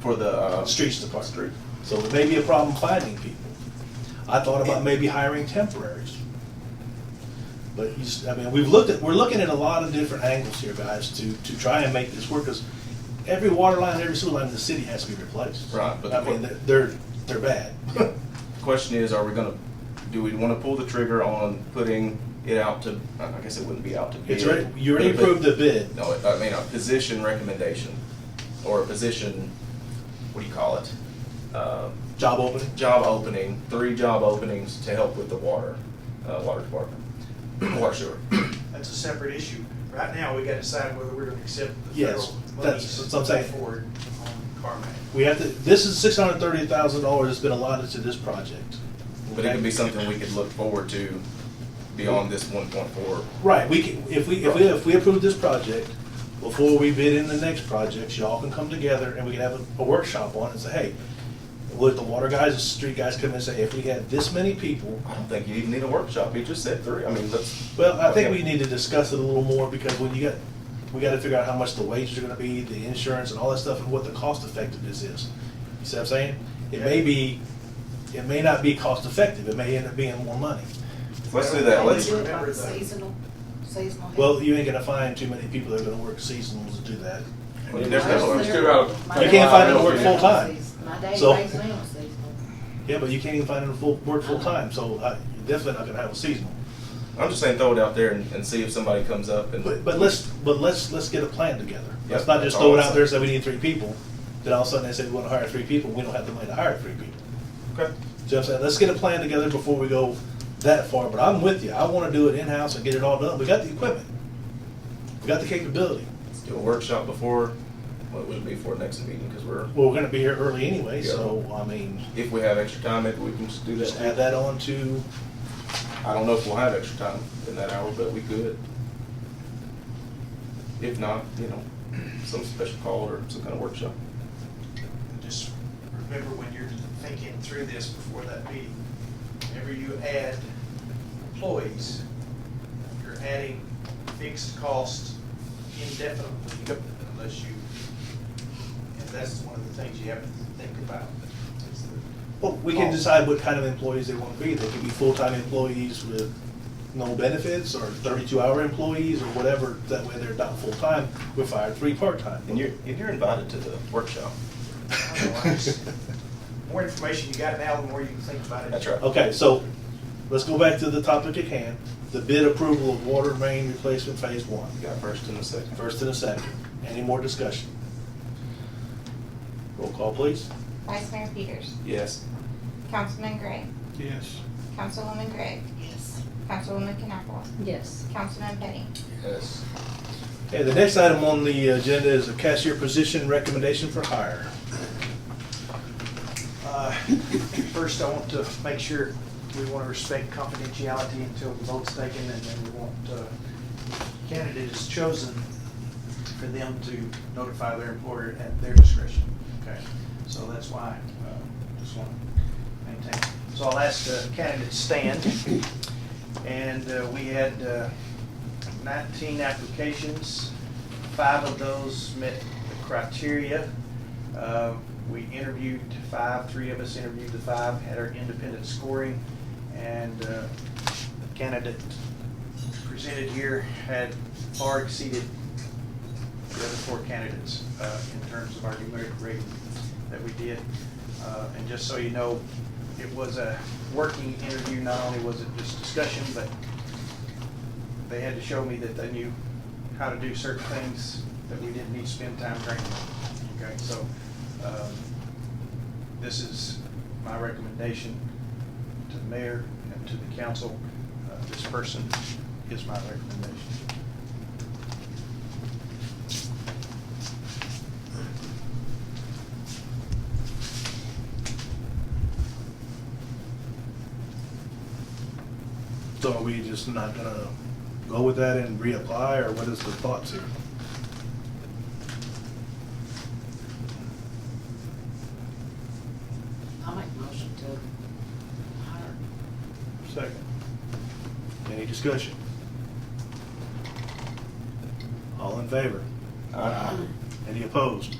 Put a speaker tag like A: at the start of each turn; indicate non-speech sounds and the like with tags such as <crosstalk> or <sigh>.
A: for the, uh.
B: Streets Department.
A: Street.
B: So it may be a problem finding people. I thought about maybe hiring temporaries. But you, s- I mean, we've looked at, we're looking at a lot of different angles here, guys, to, to try and make this work, because every water line, every sewer line in the city has to be replaced.
A: Right, but
B: I
A: the-
B: mean, they're- they're,
A: <laughs>
B: they're bad.
A: Question is, are we gonna, do we wanna pull the trigger on putting it out to, I guess it wouldn't be out to bid.
B: It's already, you already
A: but- but-
B: approved the bid.
A: No, I mean, a position recommendation, or a position, what do you call it? Um,
B: Job opening?
A: Job opening, three job openings to help with the water, uh, water department, <clears throat> water sewer.
C: That's a separate issue. Right now, we gotta decide whether we're gonna accept the
B: Yes,
C: federal
B: that's
C: monies
B: what I'm saying.
C: forward on Carmack.
B: We have to, this is six hundred and thirty thousand dollars that's been allotted to this project.
A: But it could be something we could look forward to beyond this one point four.
B: Right, we can, if we, if we, if we approve this project, before we bid in the next projects, y'all can come together and we can have a- a workshop on it and say, hey, would the water guys, the street guys come in and say, if we had this many people,
A: I don't think you even need a workshop, you just said three, I mean, that's.
B: well, I think we need to discuss it a little more because when you got, we gotta figure out how much the wages are gonna be, the insurance and all that stuff and what the cost effectiveness is. You see what I'm saying? It may be, it may not be cost effective, it may end up being more money.
A: Let's do that, let's,
C: Always remember that.
D: Seasonal, seasonal.
B: Well, you ain't gonna find too many people that are gonna work seasonals to do that.
A: there's no-
E: Let's do about-
D: You
B: can't find them to work full-time.
D: My day,
B: So-
D: days now is seasonal.
B: Yeah, but you can't even find them full, work full-time, so uh, you're definitely not gonna have a seasonal.
A: I'm just saying throw it out there and, and see if somebody comes up and.
B: But, but let's, but let's, let's get a plan together. Let's
A: Yep,
B: not just
A: that's
B: throw it
A: all I'm
B: out there and say we need three people, then all of a sudden they say we wanna hire three people, we don't have the money to hire three people.
A: Okay.
B: So I'm saying, let's get a plan together before we go that far, but I'm with you, I wanna do it in-house and get it all done, we got the equipment. We got the capability,
A: Let's do a workshop before, what would it be for next meeting, because we're,
B: well, we're gonna be here early anyway,
A: Yeah.
B: so, I mean,
A: if we have extra time, maybe we can just do
B: just
A: that.
B: add that on to,
A: I don't know if we'll have extra time in that hour, but we could. If not, you know, some special call or some kind of workshop.
C: And Just remember when you're thinking through this before that meeting, whenever you add employees, you're adding fixed costs indefinitely unless you, and that's one of the things you have to think about. is the-
B: Well, we can
C: Oh.
B: decide what kind of employees they want to be. They could be full-time employees with no benefits, or thirty-two hour employees, or whatever. That way they're not full-time, we fire three part-time.
A: And you're, and you're invited to the workshop.
B: <laughs>
C: Otherwise, More information you got now, the more you can think about it.
A: That's right.
B: Okay, so, let's go back to the topic at hand, the bid approval of water main replacement phase one.
A: You got first and a second.
B: First and a second, any more discussion? Roll call, please.
F: Vice Mayor Peters.
A: Yes.
F: Councilman Gray.
C: Yes.
F: Councilwoman Gregg.
D: Yes.
F: Councilwoman Knappel.
D: Yes.
F: Councilman Petty.
A: Yes.
B: Okay, the next item on the agenda is a cashier position recommendation for hire.
C: Uh, First, I want to make sure we want to respect confidentiality until the vote's taken, and then we want, uh, candidate is chosen for them to notify their employer at their discretion, okay? So that's why, uh, just want to maintain. So I'll ask the candidates stand, and uh, we had uh, 19 applications. Five of those met the criteria. Uh, We interviewed five, three of us interviewed the five, had our independent scoring, and uh, the candidate presented here had far exceeded the other four candidates uh, in terms of our numeric rating that we did. Uh, And just so you know, it was a working interview, not only was it just discussion, but they had to show me that they knew how to do certain things that we didn't need to spend time training. Okay, so, um, this is my recommendation to the mayor and to the council. Uh, This person is my recommendation.
B: So are we just not gonna go with that and reapply, or what is the thoughts here?
D: I'll make a motion to hire.
B: Second. Any discussion? All in favor? Any opposed?